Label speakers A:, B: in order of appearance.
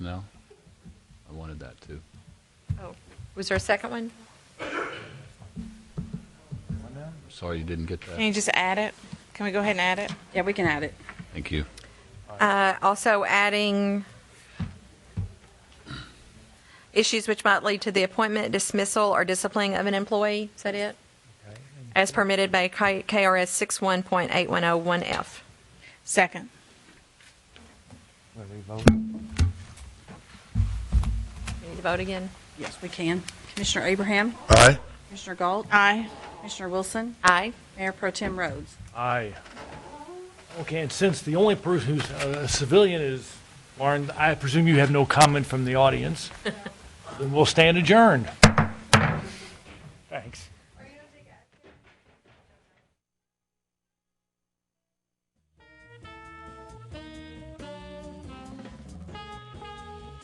A: No? I wanted that too.
B: Oh, was there a second one?
A: Sorry you didn't get
C: Can
A: that.
C: you just add it? Can we go ahead and add it?
D: Yeah, we can add it.
A: Thank you.
B: Uh, Also adding issues which might lead to the appointment, dismissal, or disciplining of an employee, is that it? As permitted by K- KRS 61.8101F.
C: Second.
E: Where we vote?
B: We Need to vote again?
D: Yes, we can. Commissioner Abraham?
F: Aye.
D: Commissioner Galt?
C: Aye.
D: Commissioner Wilson?
B: Aye.
D: Mayor Pro Tem Rhodes?
G: Aye. Okay, and since the only person who's uh, a civilian is Lauren, I presume you have no comment from the audience? Then we'll stand adjourned.